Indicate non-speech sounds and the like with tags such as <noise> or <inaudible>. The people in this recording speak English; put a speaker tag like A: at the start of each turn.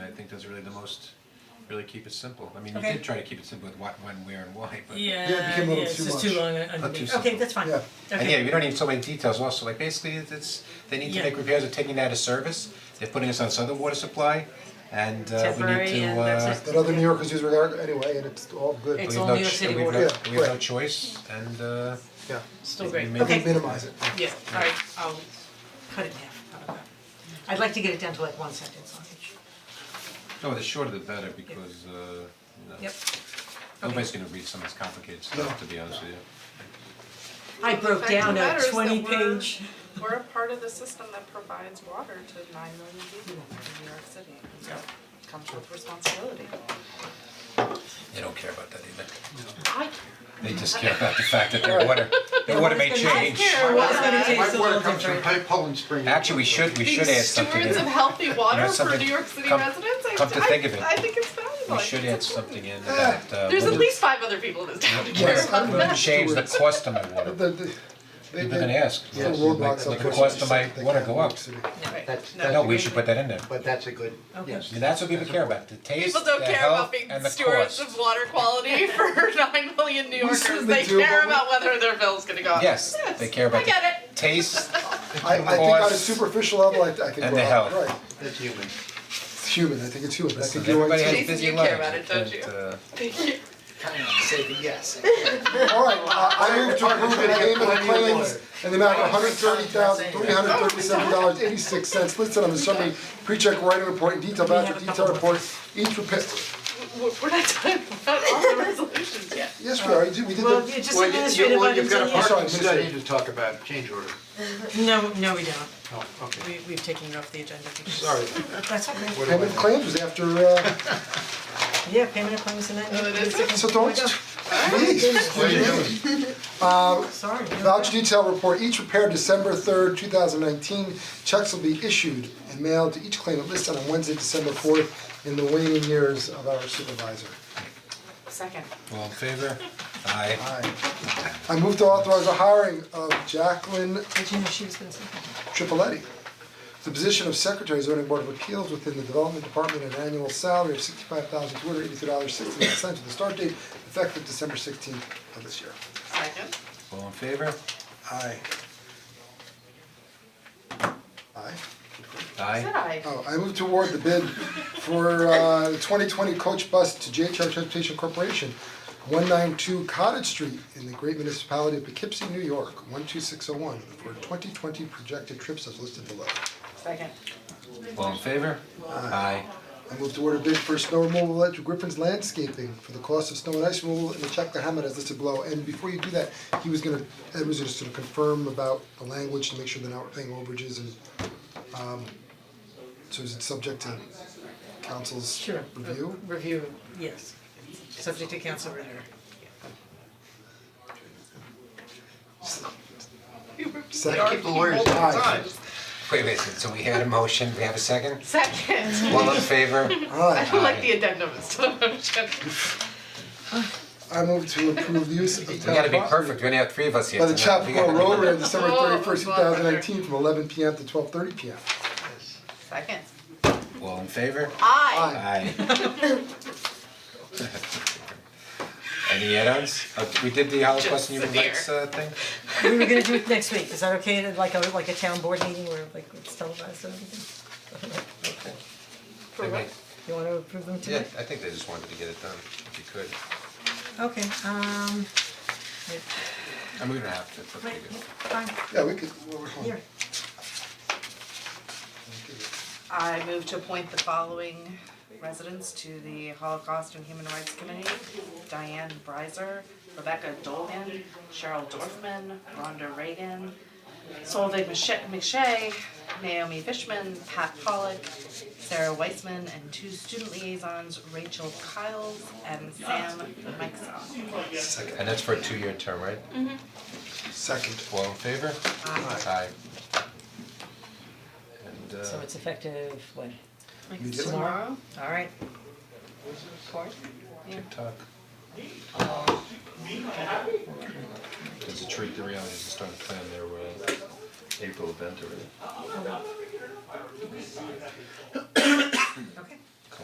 A: does really the most, really keep it simple. I mean, you
B: Okay.
A: did try to keep it simple with what, when, where and why, but.
C: Yeah,
D: Yeah, it became a
C: yeah,
D: little
C: it's
D: too
C: just too
D: much.
C: long
A: Not too
C: underneath.
A: simple.
B: Okay, that's fine.
D: Yeah.
A: And
B: Okay.
A: yeah, we don't need so many details also, like basically it's- it's, they need to
C: Yeah.
A: make repairs, they're taking that as service, they're putting us on southern water supply and uh we need
E: Temporary
A: to
E: and
A: uh.
E: that's
D: That other New Yorkers use regard anyway, and it's all good.
E: It's
A: we have
E: all
A: no
E: New York
A: ch-
E: City
A: we have no-
D: water. Yeah,
A: We have no
D: right.
A: choice and uh.
D: Yeah,
C: Still great,
A: we
B: Okay.
A: may-
D: minimize it.
C: yeah,
E: Alright, I'll,
B: Cut it in half, how about that? I'd like to get it down to like one sentence on each.
A: No, the shorter the better because uh, you know,
B: Yep.
A: nobody's gonna read some of this complicated stuff, to be honest with you.
B: I broke down a
F: matters that
B: twenty
F: we're-
B: page,
F: We're a part of the system that provides water to nine million people in New York City. So it Comes with responsibility.
A: They don't care about that either.
B: I,
A: They just care about the fact that their water, their water may change.
B: I was gonna take
D: My
B: a
D: water
B: little
D: comes from
B: different.
D: Pipe Poland Spring.
A: Actually, we should, we should add something in.
F: Stewards of healthy water for
A: something-
F: New York City
A: come-
F: residents, I
A: come to
F: I-
A: think of it,
F: I think it's valuable.
A: We
F: I
A: should
F: think
A: add
F: Oh, it's
A: something in that uh.
F: There's at
A: would-
F: least five other people in this town who care
D: Yes.
F: about
A: would Change the cost of my
D: <laughs>
A: water.
D: The, the, they,
A: People can
D: they,
A: ask,
D: the
A: like,
D: roadblocks
A: like
D: up
A: the
D: there,
A: cost of
D: something
A: my
D: they
A: water
D: can't
A: go
D: do in
A: up.
D: the city.
G: That's,
F: No.
A: No, we should put that in there.
G: but that's a good, yes.
A: And that's what people care about, the taste, the
F: People don't care about
A: health
F: being
A: and the cost.
F: stewards of water
A: <laughs>
F: quality for nine million New Yorkers,
D: certainly
F: they
D: do,
F: care
D: but we-
F: about whether their bill's gonna go up.
A: Yes, they care about
F: I get
A: the
F: <laughs>
A: taste,
D: I, I think on a
A: Cost.
D: superficial level, I, I think
A: And
D: we're
A: the
D: all
A: health.
D: right.
G: that's human.
D: It's human, I think it's human, I
A: Listen,
D: think you're right
A: everybody has
D: too.
F: Jason,
A: busy
F: you
A: lives,
F: care about it, don't
A: you can't,
F: you?
A: uh,
G: Kind of say
B: <laughs>
G: the yes.
D: All right, I I move to approve the payment of claims in the amount of one hundred thirty thousand, three hundred thirty-seven dollars, eighty-six cents listed on the summary pre-check writing report and detailed voucher detail report. Each repair,
F: We're we're not talking about all the <laughs> resolutions yet.
D: yes, we are, we did the.
B: well, you just administrative
G: Well, you've
B: items
G: got
B: on
G: a
B: the end.
D: Sorry,
G: parking
D: Mr.
G: study to talk about, change order.
B: No, no, we don't,
G: Oh, okay,
E: we, we've taken it off the agenda because.
G: sorry.
B: that's okay,
D: Payment of claims was after, uh,
B: yeah, payment of claims and that.
F: No, it isn't.
D: so don't. Please. Um,
B: Sorry. no.
D: Voucher detail report, each prepared December third, two thousand nineteen, checks will be issued and mailed to each claimant listed on Wednesday, December fourth, in the waning years of our supervisor.
F: Second.
A: all in
F: <laughs>
A: favor? Aye.
D: Aye. I move to authorize the hiring of Jacqueline
B: Did you know she was gonna say that?
D: Tripoletti to the position of Secretary zoning board of appeals within the development department at an annual salary of sixty-five thousand two hundred eighty-three dollars sixty-nine cents with a start date effective December sixteenth of this year.
F: Second.
A: All in favor?
D: Aye. Aye.
A: Aye.
F: Said I.
D: Oh, I move toward the bid for uh the twenty twenty coach bus to JHR Transportation Corporation, one nine two Cottage Street in the great municipality of Poughkeepsie, New York, one two six oh one, for twenty twenty projected trips as listed below.
F: Second.
A: All in favor? Aye.
D: I move toward a bid for snow removal at Griffin's Landscaping for the cost of snow and ice removal in the Chappaqua as listed below. And before you do that, he was gonna, Ed was just gonna confirm about the language to make sure they're not paying overages and um so is it subject to council's
E: Sure.
D: review?
E: Review,
B: Yes,
E: subject to council review.
G: Keep the lawyers on
D: Aye.
G: time.
A: Wait, wait, so we had a motion, we have a second?
F: Second.
A: All in
F: <laughs>
A: favor?
D: Aye.
F: I like the addendum instead of motion.
D: I move to approve the use of
A: We
D: town
A: gotta be
D: property
A: perfect, we only have three of us here
D: by the
A: tonight. We gotta
D: Chapua
A: be-
D: Rotary on December
F: Oh,
D: thirty first, two
F: bother.
D: thousand nineteen, from eleven P M to twelve thirty P M.
F: Second.
A: All in favor?
F: I.
A: Aye. Any add-ons? Uh, we did the Holocaust and Human
F: Just
A: Rights uh thing?
B: we were gonna do it next week, is that okay, like a, like a town board meeting where like it's televised and everything?
A: Okay.
F: For
A: They
F: what?
A: might-
B: You wanna approve them
A: Yeah,
B: tonight?
A: I think they just wanted to get it done, if you could.
B: Okay, um,
A: I mean, we don't have to, it's up to
B: wait,
A: you.
B: fine,
D: Yeah, we could, well, we're home.
B: here,
F: I move to appoint the following residents to the Holocaust and Human Rights Committee. Diane Breiser, Rebecca Dolan, Cheryl Dorfman, Rhonda Reagan, Solveig Mache- McShay, Naomi Fishman, Pat Pollock, Sarah Weissman, and two student liaisons, Rachel Kiles and Sam Mikeson.
A: And that's for a two-year term, right?
B: Mm-hmm.
D: Second.
A: All in favor? Aye. And uh,
B: so it's effective when,
D: Immediately.
B: tomorrow, alright,
A: TikTok. It's a treat, the reality is starting to plan their uh, April event already.
B: okay.